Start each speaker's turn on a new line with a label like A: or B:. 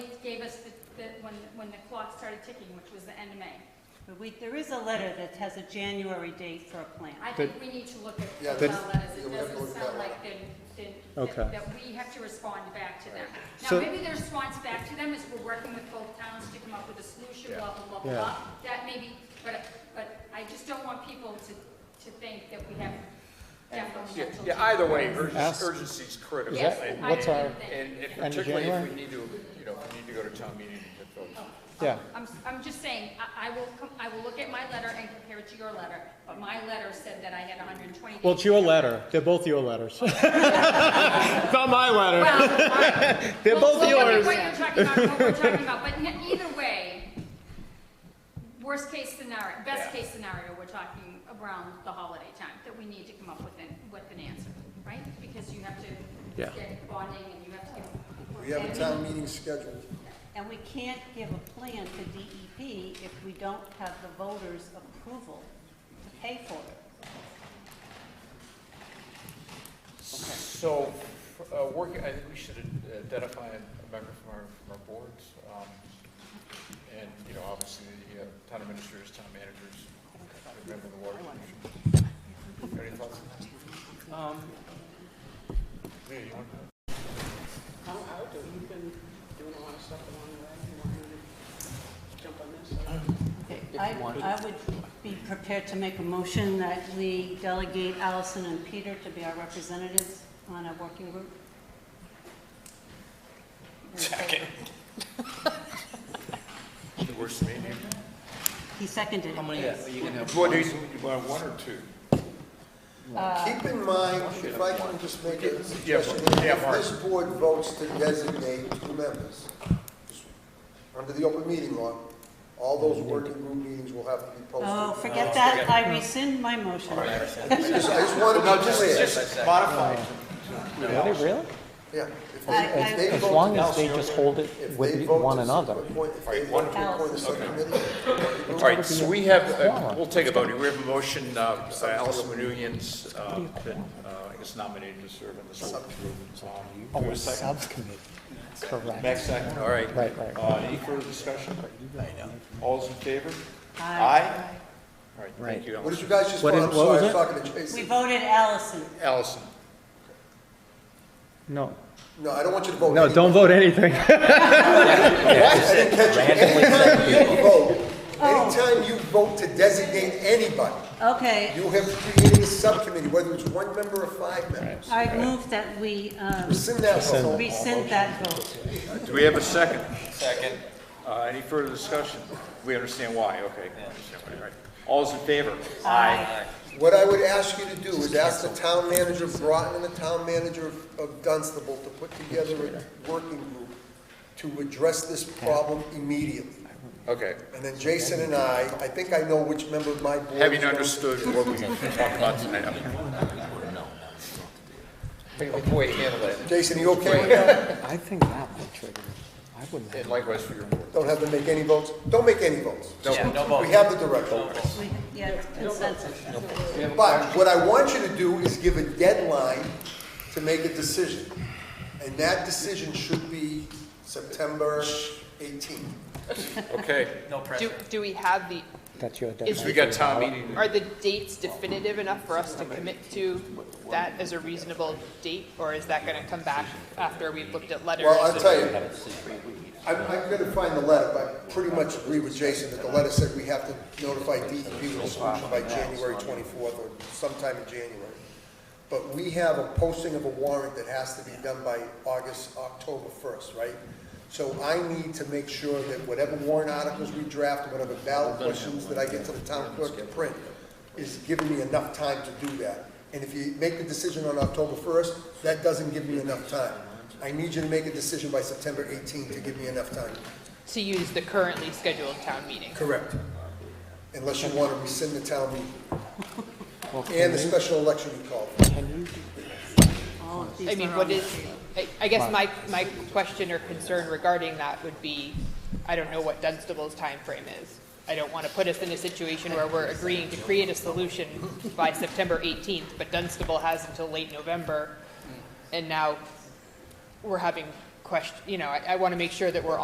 A: when, when the clock started ticking, which was the end of May.
B: But we, there is a letter that has a January date for a plan.
A: I think we need to look at
C: Yeah,
A: the
C: that's-
A: letters,
C: yeah,
A: it
C: we have to
A: doesn't
C: look at
A: sound
C: that
A: like they, they-
D: Okay.
A: that that we have to respond back to them. Now,
D: So-
A: maybe their response back to them is we're working with both towns to come up with a solution, blah, blah, blah,
D: Yeah.
A: blah. That may be, but, but I just don't want people to, to think that we have definitely
E: Yeah,
A: until
E: yeah, either way,
A: January.
D: Ask-
E: urgency is critical.
D: Is that-
A: Yes,
E: And
A: I
D: what's
A: agree
D: our-
A: with that.
E: and- and
D: End of
E: particularly if we
D: January?
E: need to, you know, if we need to go to town meeting to vote.
D: Yeah.
A: I'm, I'm just saying, I, I will, com- I will look at my letter and compare it to your letter, but my letter said that I had hundred and twenty days.
D: Well, it's your letter. They're both your letters. Not my letter.
A: Well, I-
D: They're
A: Well,
D: both
A: well, look at
D: yours.
A: What you're talking about, what we're talking about, but n- either way, worst case scenario, best
E: Yeah.
A: case scenario, we're talking around the holiday time, that we need to come up with an, with an answer, right? Because you have to
D: Yeah.
A: get bonding and you have to. get-
C: We have a town meeting scheduled.
B: And we can't give a plan to DEP if we don't have the voters' approval to pay for it.
E: So, uh, working, I think we should identify a member from our, from our boards. um, And, you know, obviously, the uh, town administrators, town managers, a member of the water commission. Any thoughts? Leah, you want to?
F: I'll, I'll do it. You've been doing a lot of stuff along the way. You want me to jump on this?
B: Okay, I, I would be prepared to make a motion that we delegate Allison and Peter to be our representatives on a working group.
E: The worst meeting?
B: He seconded it.
E: What, you want one or two?
C: Keep in mind, if I can just make a suggestion,
E: yeah,
C: if
E: Mark.
C: this board votes to designate two members, under the open meeting law, all those working group meetings will have to be posted.
B: Oh, forget that, I rescind my motion.
C: I just, I just want to
E: No,
C: be
E: just,
C: clear.
E: just modify. it.
D: Are they really?
C: Yeah. if they-
B: I-
C: if they
B: I-
D: As
C: vote
D: long
C: to-
D: as they just hold it
C: if they
D: with
C: vote
D: one
C: to
D: another.
C: appoint- If they vote to appoint a subcommittee,
E: All right, so we have, uh, we'll take a vote. We have a motion, uh, by Allison Manoukian's, uh, been, uh, I guess nominated to serve on this working group. Um,
D: Oh, a subcommittee. Correct.
E: Next second, all right.
D: Right, right.
E: Uh, Any further discussion? All's in favor? All right, thank
D: Right.
E: you,
C: what did
E: Allison.
C: you guys just
D: What
C: vote?
D: is-
C: I'm
D: what
C: sorry,
D: was
C: I was
D: it?
C: talking to
B: We
C: Jason.
B: voted Allison.
E: Allison,
D: No,
C: No, I don't want you to vote.
D: no, don't vote anything.
C: I didn't catch it. Anytime you vote, anytime you vote to designate anybody,
B: Okay,
C: you have created a subcommittee, whether it's one member or five members.
B: I move that we um,
C: Rescind that vote.
B: rescind that vote.
E: do we have a second? Second. Uh, any further discussion? We understand why, okay. We understand why, all right. All's in favor?
B: Aye.
C: What I would ask you to do is ask the town manager of Groton and the town manager of- of Dunstable to put together a working group to address this problem immediately.
E: Okay,
C: And then Jason and I, I think I know which member of my board.
E: having
C: is gonna-
E: understood what we talked about tonight. Way to handle it.
C: Jason, you okay with that?
D: I think that would trigger. I wouldn't.
E: And likewise for your board.
C: Don't have to make any votes? Don't make any votes.
E: no
C: We have the direction.
B: We- Yeah, it's consensus.
C: But what I want you to do is give a deadline to make a decision. And that decision should be September 18th.
E: Okay,
G: Do, do we have the,
D: That's your
G: is,
D: deadline.
E: we got town meeting.
G: are the dates definitive enough for us to commit to that as a reasonable date? Or is that gonna come back after we've looked at letters?
C: Well, I'll tell you, I'm, I'm gonna find the letter, but I pretty much agree with Jason that the letter said we have to notify DEP with a solution by January 24th or sometime in January. But we have a posting of a warrant that has to be done by August, October 1st, right? So I need to make sure that whatever warrant articles we draft, whatever ballot questions that I get to the town clerk to print, is giving me enough time to do that. And if you make the decision on October 1st, that doesn't give me enough time. I need you to make a decision by September 18th to give me enough time.
G: To use the currently scheduled town meeting?
C: Correct. Unless you want to rescind the town meeting. And the special election you called.
B: All of these
G: I mean,
B: are on
G: what
B: the
G: is,
B: table.
G: I- I guess my, my question or concern regarding that would be, I don't know what Dunstable's timeframe is. I don't want to put us in a situation where we're agreeing to create a solution by September 18th, but Dunstable has until late November, and now we're having question, you know, I, I want to make sure that we're